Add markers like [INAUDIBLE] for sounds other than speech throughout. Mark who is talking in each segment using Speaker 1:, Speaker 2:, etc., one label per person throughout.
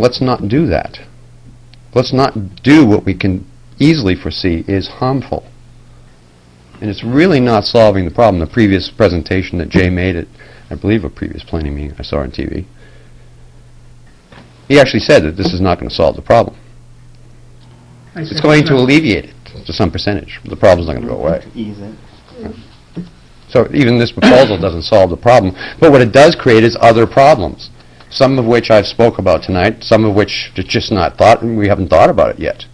Speaker 1: Let's not do that. Let's not do what we can easily foresee is harmful. And it's really not solving the problem. The previous presentation that Jay made at, I believe, a previous planning meeting I saw on TV, he actually said that this is not going to solve the problem.
Speaker 2: I
Speaker 1: It's
Speaker 2: said
Speaker 1: going to
Speaker 2: no.
Speaker 1: alleviate it to some percentage. The problem's not going to go away.
Speaker 3: Ease it.
Speaker 1: So even this proposal doesn't solve the problem, but what it does create is other problems, some of which I've spoke about tonight, some of which it's just not thought, and we haven't thought about it yet.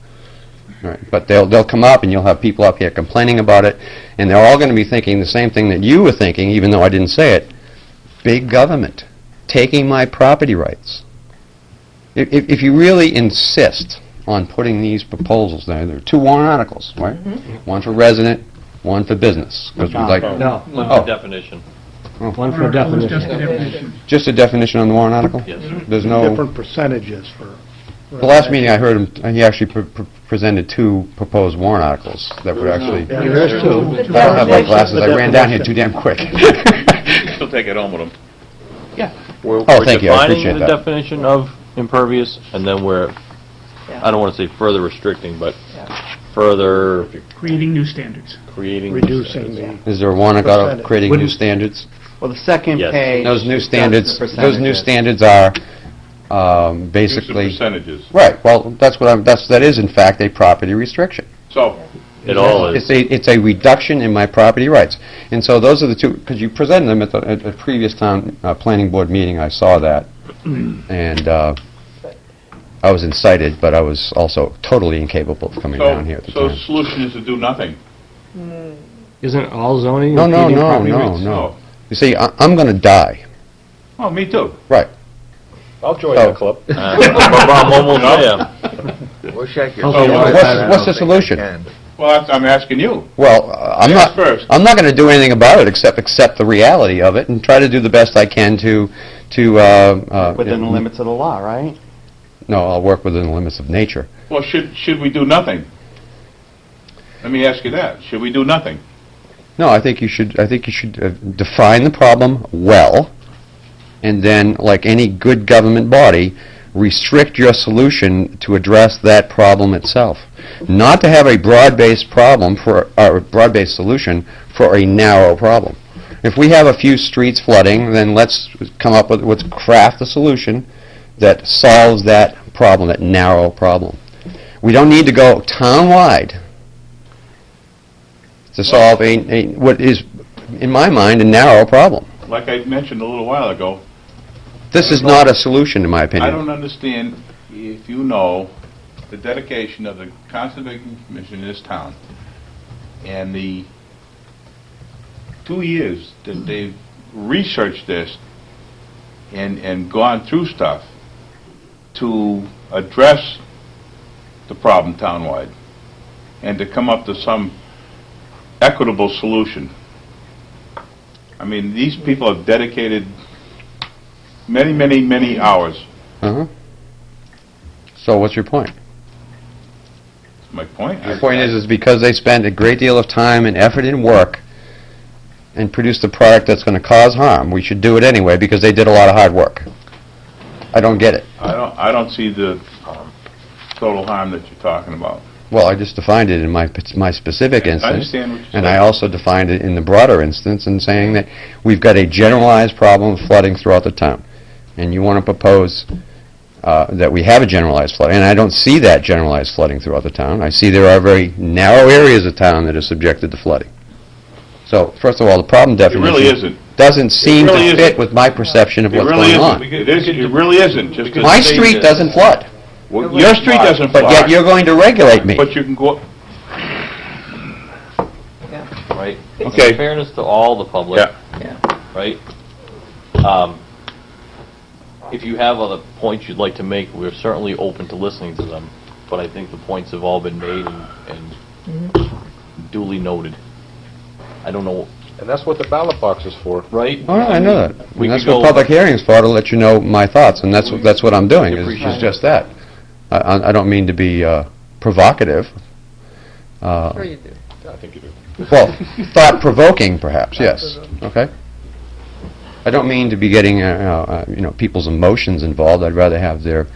Speaker 1: Right, But they'll, they'll come up, and you'll have people up here complaining about it, and they're all going to be thinking the same thing that you were thinking, even though I didn't say it. Big government, taking my property rights. If, if if you really insist on putting these proposals, there there are two warrant articles, right? One for resident, Mm-hmm. one for business, 'cause we'd like...
Speaker 4: No,
Speaker 1: Oh.
Speaker 5: One Uh, definition.
Speaker 4: one for
Speaker 2: Article is just
Speaker 4: definition.
Speaker 2: a definition.
Speaker 1: Just a definition on the warrant article?
Speaker 5: Yes.
Speaker 1: There's no,
Speaker 6: different percentages for...
Speaker 1: the last meeting I heard him, he actually pre- pre- presented two proposed warrant articles that were actually,
Speaker 6: Yeah, there's two.
Speaker 1: I don't have my glasses, I ran down here too damn quick.
Speaker 7: She'll take it home with them.
Speaker 1: Oh, thank you, I appreciate
Speaker 5: Defining the
Speaker 1: that.
Speaker 5: definition of impervious, and then we're, I don't want to say further restricting, but further
Speaker 2: Creating new standards.
Speaker 5: creating.
Speaker 6: Reducing the...
Speaker 1: Is there a warrant article
Speaker 6: Percentage.
Speaker 1: creating new standards?
Speaker 3: Well, the second
Speaker 5: Yes.
Speaker 3: page.
Speaker 1: Those new
Speaker 3: discusses
Speaker 1: standards,
Speaker 3: the
Speaker 1: those new
Speaker 3: percentages.
Speaker 1: standards are um,
Speaker 7: Use the
Speaker 1: basically,
Speaker 7: percentages.
Speaker 1: right, well, that's what I'm, that's, that is in fact a property restriction.
Speaker 7: So,
Speaker 5: It all
Speaker 1: It's
Speaker 5: is.
Speaker 1: a, it's a reduction in my property rights. And so those are the two, because you presented them at the, at a previous town, uh, planning board meeting, I saw that. And, uh, I was incited, but I was also totally incapable of coming
Speaker 7: so,
Speaker 1: down here at the
Speaker 7: so
Speaker 1: time.
Speaker 7: solution is to do nothing.
Speaker 4: Isn't all zoning
Speaker 1: No, no,
Speaker 4: impeding
Speaker 1: no,
Speaker 4: property
Speaker 1: no,
Speaker 4: rights?
Speaker 1: no. You see, I, I'm gonna die.
Speaker 7: Oh, me too.
Speaker 1: Right.
Speaker 8: I'll join
Speaker 1: Oh.
Speaker 8: the club.
Speaker 5: Uh, [LAUGHS] I'm almost there.
Speaker 8: We'll shake your
Speaker 4: Oh,
Speaker 8: hand.
Speaker 4: yeah.
Speaker 8: I
Speaker 1: What's-
Speaker 8: don't
Speaker 1: what's the
Speaker 8: think
Speaker 1: solution?
Speaker 8: I can.
Speaker 7: Well, that's, I'm asking you.
Speaker 1: Well, uh, I'm
Speaker 7: Yes,
Speaker 1: not,
Speaker 7: first.
Speaker 1: I'm not gonna do anything about it except accept the reality of it and try to do the best I can to, to, uh, uh...
Speaker 3: Within the limits of the law, right?
Speaker 1: No, I'll work within the limits of nature.
Speaker 7: Well, should, should we do nothing? Let me ask you that. Should we do nothing?
Speaker 1: No, I think you should, I think you should uh, define the problem well, and then, like any good government body, restrict your solution to address that problem itself. Not to have a broad-based problem for, or a broad-based solution for a narrow problem. If we have a few streets flooding, then let's come up with, let's craft a solution that solves that problem, that narrow problem. We don't need to go town-wide to solve a, a- what is, in my mind, a narrow problem.
Speaker 7: Like I mentioned a little while ago,
Speaker 1: This is not a solution, in my
Speaker 7: I
Speaker 1: opinion.
Speaker 7: don't understand if you know the dedication of the Conservation Commission in this town and the two years that they've researched this and, and gone through stuff to address the problem townwide and to come up to some equitable solution. I mean, these people have dedicated many, many, many hours
Speaker 1: Uh-huh. So what's your point?
Speaker 7: My point?
Speaker 1: Your point is, is because they spend a great deal of time and effort and work and produce the product that's going to cause harm, we should do it anyway because they did a lot of hard work. I don't get it.
Speaker 7: I don't, I don't see the um, total harm that you're talking about.
Speaker 1: Well, I just defined it in my, my specific
Speaker 7: I
Speaker 1: instance.
Speaker 7: understand what you're
Speaker 1: And I
Speaker 7: saying.
Speaker 1: also defined it in the broader instance in saying that we've got a generalized problem of flooding throughout the town. And you want to propose uh, that we have a generalized flood, and I don't see that generalized flooding throughout the town. I see there are very narrow areas of town that are subjected to flooding. So, first of all, the problem
Speaker 7: It
Speaker 1: definition...
Speaker 7: really isn't.
Speaker 1: Doesn't seem
Speaker 7: really
Speaker 1: to
Speaker 7: isn't.
Speaker 1: fit with my perception of
Speaker 7: It
Speaker 1: what's
Speaker 7: really
Speaker 1: going on.
Speaker 7: isn't. It isn't, it really isn't, just to
Speaker 1: My
Speaker 7: say
Speaker 1: street
Speaker 7: that-
Speaker 1: doesn't flood,
Speaker 7: Well, Your street doesn't
Speaker 1: but yet
Speaker 7: flood,
Speaker 1: you're going to regulate me.
Speaker 7: but you can go,
Speaker 5: Right.
Speaker 7: Okay.
Speaker 5: In fairness to all the public.
Speaker 7: Yeah.
Speaker 5: Right? Um, If you have other points you'd like to make, we're certainly open to listening to them, but I think the points have all been made and and duly noted. I don't know,
Speaker 8: And that's what the ballot box is for.
Speaker 5: right?
Speaker 1: Oh, no, I know that. And
Speaker 5: We
Speaker 1: that's
Speaker 5: could
Speaker 1: what
Speaker 5: go-
Speaker 1: public hearings for, to let you know my thoughts, and that's, what- that's what I'm doing, is
Speaker 5: Appreciate
Speaker 1: is
Speaker 5: it.
Speaker 1: just that. I- I, I don't mean to be uh, provocative. Uh,
Speaker 9: Sure you do.
Speaker 8: I think you do.
Speaker 1: Well, thought-provoking perhaps, yes, okay? I don't mean to be getting, uh, uh, you know, people's emotions involved, I'd rather have their